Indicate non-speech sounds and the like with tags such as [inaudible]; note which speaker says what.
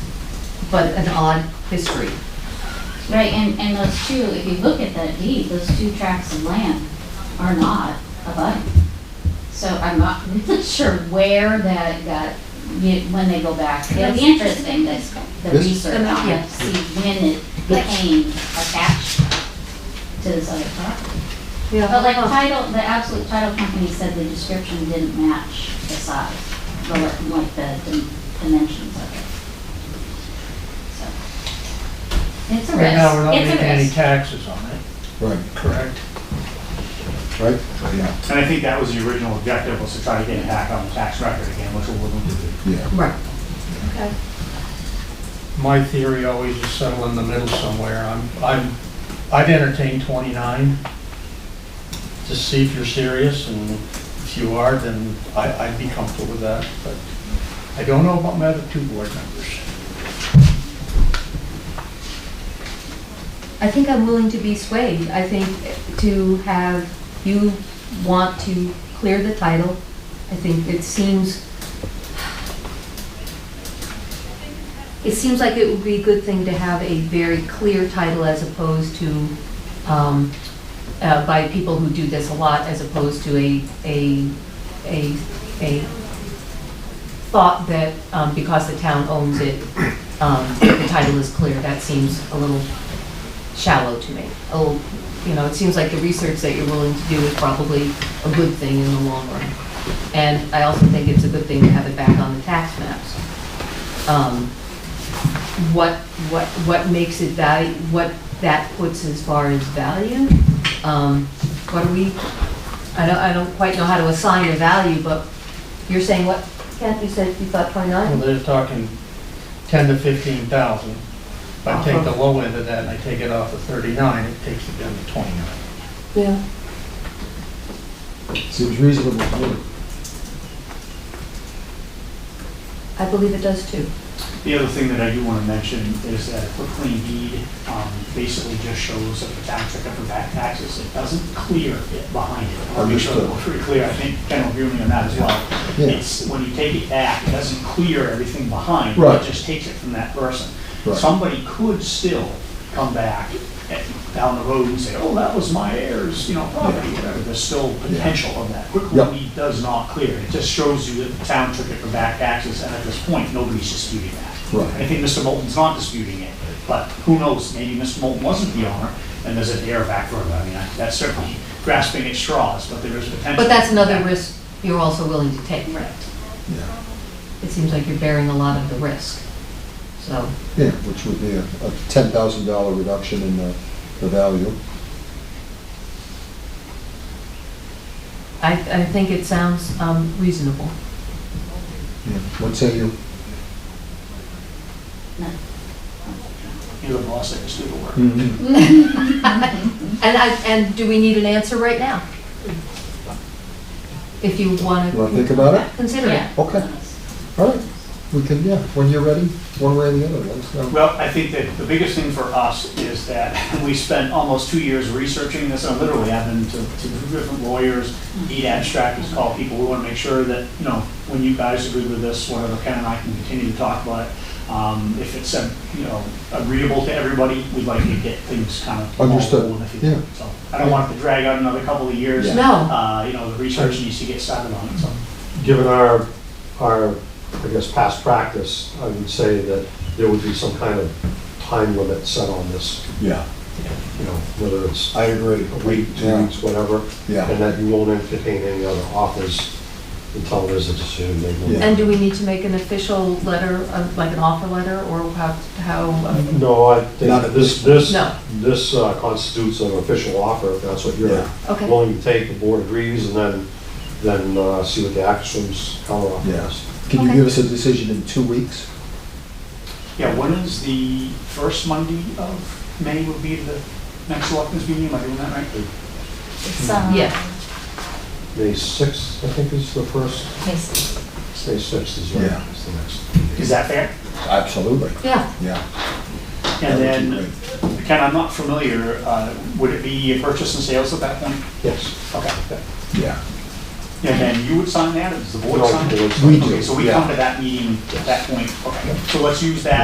Speaker 1: but an odd history.
Speaker 2: Right, and, and those two, if you look at that deed, those two tracts of land are not abutting. So I'm not [laughs] really sure where that got, you- when they go back. It'll be interesting, that the
Speaker 3: This-
Speaker 2: research, on
Speaker 1: Yeah.
Speaker 2: it, see when it became attached to this other property. But like title, the absolute title company said the description didn't match the size, the, like the dim- dimensions of it. So It's a risk.
Speaker 4: Right now, we're not
Speaker 2: It's a
Speaker 4: making any
Speaker 2: risk.
Speaker 4: taxes on it,
Speaker 3: Right,
Speaker 4: correct?
Speaker 3: right, yeah,
Speaker 5: And I think that was the original objective, was to try to get it back on the tax record again, which we wouldn't do.
Speaker 3: yeah.
Speaker 1: Right.
Speaker 4: My theory always is settle in the middle somewhere. I'm, I'm, I'd entertain 29 to see if you're serious, and if you are, then I, I'd be comfortable with that, but I don't know about my other two board members.
Speaker 1: I think I'm willing to be swayed. I think to have, you want to clear the title. I think it seems, it seems like it would be a good thing to have a very clear title as opposed to, um, uh, by people who do this a lot, as opposed to a, a, a, a thought that, um, because the town owns it, um, the title is clear. That seems a little shallow to me. Oh, you know, it seems like the research that you're willing to do is probably a good thing in the long run. And I also think it's a good thing to have it back on the tax maps. Um, What, what, what makes it value, what that puts as far as value? Um, What do we, I don't, I don't quite know how to assign a value, but you're saying what, Kathy said you thought
Speaker 4: Well,
Speaker 1: 29?
Speaker 4: they're talking 10 to 15,000. If I take the low end of that and I take it off to 39, it takes it down to 29.
Speaker 1: Yeah.
Speaker 3: Seems reasonable to me.
Speaker 1: I believe it does too.
Speaker 5: The other thing that I do want to mention is that a quick clean deed um, basically just shows that the tax record for back taxes. It doesn't clear it behind it. I want to make sure that we're pretty clear, I think general agreement on that as well.
Speaker 3: Yeah.
Speaker 5: It's, when you take it back, it doesn't clear everything behind.
Speaker 3: Right.
Speaker 5: It just takes it from that person.
Speaker 3: Right.
Speaker 5: Somebody could still come back at- down the road and say, oh, that was my heirs, you know, property, whatever. There's still potential of that. Quick
Speaker 3: Yep.
Speaker 5: clean deed does not clear. It just shows you that the town took it for back taxes, and at this point, nobody's disputing that.
Speaker 3: Right.
Speaker 5: I think Mr. Moulton's not disputing it, but who knows, maybe Mr. Moulton wasn't the owner, and there's an heir back road, I mean, I- that's certainly grasping at straws, but there is potential.
Speaker 1: But that's another risk you're also willing to take.
Speaker 2: Right.
Speaker 3: Yeah,
Speaker 1: it seems like you're bearing a lot of the risk. So,
Speaker 3: yeah, which would be a a $10,000 reduction in the the value.
Speaker 1: I, I think it sounds um, reasonable.
Speaker 3: Yeah. What say you?
Speaker 5: You're the boss, I just do the work.
Speaker 3: Mm-hmm.
Speaker 1: And I, and do we need an answer right now? If you want to.
Speaker 3: Wanna think about it?
Speaker 1: Consider it.
Speaker 2: Yeah.
Speaker 3: Okay. All right, we can, yeah, when you're ready, one way or the other, let us know.
Speaker 5: Well, I think that the biggest thing for us is that [laughs] we spent almost two years researching this, and literally I've been to, to different lawyers, deed abstractors, call people, we wanna make sure that, you know, when you guys agree with this, whatever, Ken and I can continue to talk about it. Um, if it's, um, you know, agreeable to everybody, we'd like to get things kind of.
Speaker 3: Understood.
Speaker 5: rolling, if you-
Speaker 3: Yeah.
Speaker 5: So, I don't want it to drag out another couple of years.
Speaker 3: Yeah.
Speaker 1: No.
Speaker 5: Uh, you know, the research needs to get started on it, so.
Speaker 6: given our, our, I guess, past practice, I would say that there would be some kind of time limit set on this,
Speaker 3: Yeah,
Speaker 6: you know, whether it's
Speaker 3: I agree.
Speaker 6: a week, two
Speaker 3: Yeah.
Speaker 6: weeks, whatever.
Speaker 3: Yeah.
Speaker 6: And that you won't entertain any other offers until there's a decision made.
Speaker 3: Yeah.
Speaker 1: And do we need to make an official letter, of- like an offer letter, or how, how, um,
Speaker 6: No, I
Speaker 3: Not
Speaker 6: think
Speaker 3: at
Speaker 6: this, this,
Speaker 1: No.
Speaker 6: this uh, constitutes an official offer, if that's what you're
Speaker 3: Yeah.
Speaker 1: Okay.
Speaker 6: willing to take, the board agrees, and then, then uh, see what the actions, counter offer is.
Speaker 3: Yes. Can you
Speaker 1: Okay.
Speaker 3: give us a decision in two weeks?
Speaker 5: Yeah, when is the first Monday of May would be the next selectmen's meeting, am I doing that right?
Speaker 2: It's, um,
Speaker 1: yeah.
Speaker 6: May 6th, I think is the first,
Speaker 1: Yes.
Speaker 6: May 6th is
Speaker 3: Yeah.
Speaker 6: right, is the next.
Speaker 5: Is that fair?
Speaker 3: Absolutely.
Speaker 1: Yeah,
Speaker 3: Yeah. that
Speaker 5: And
Speaker 3: would
Speaker 5: then,
Speaker 3: be great.
Speaker 5: Ken, I'm not familiar, uh, would it be a purchase and sales at that point?
Speaker 6: Yes.
Speaker 5: Okay.
Speaker 3: Yeah,
Speaker 5: And then you would sign that, or does the board
Speaker 6: No,
Speaker 5: sign
Speaker 6: the board
Speaker 5: it?
Speaker 6: signs
Speaker 3: it.
Speaker 5: Okay, so we
Speaker 3: Yeah.
Speaker 5: come to that meeting at that point, okay. So let's use that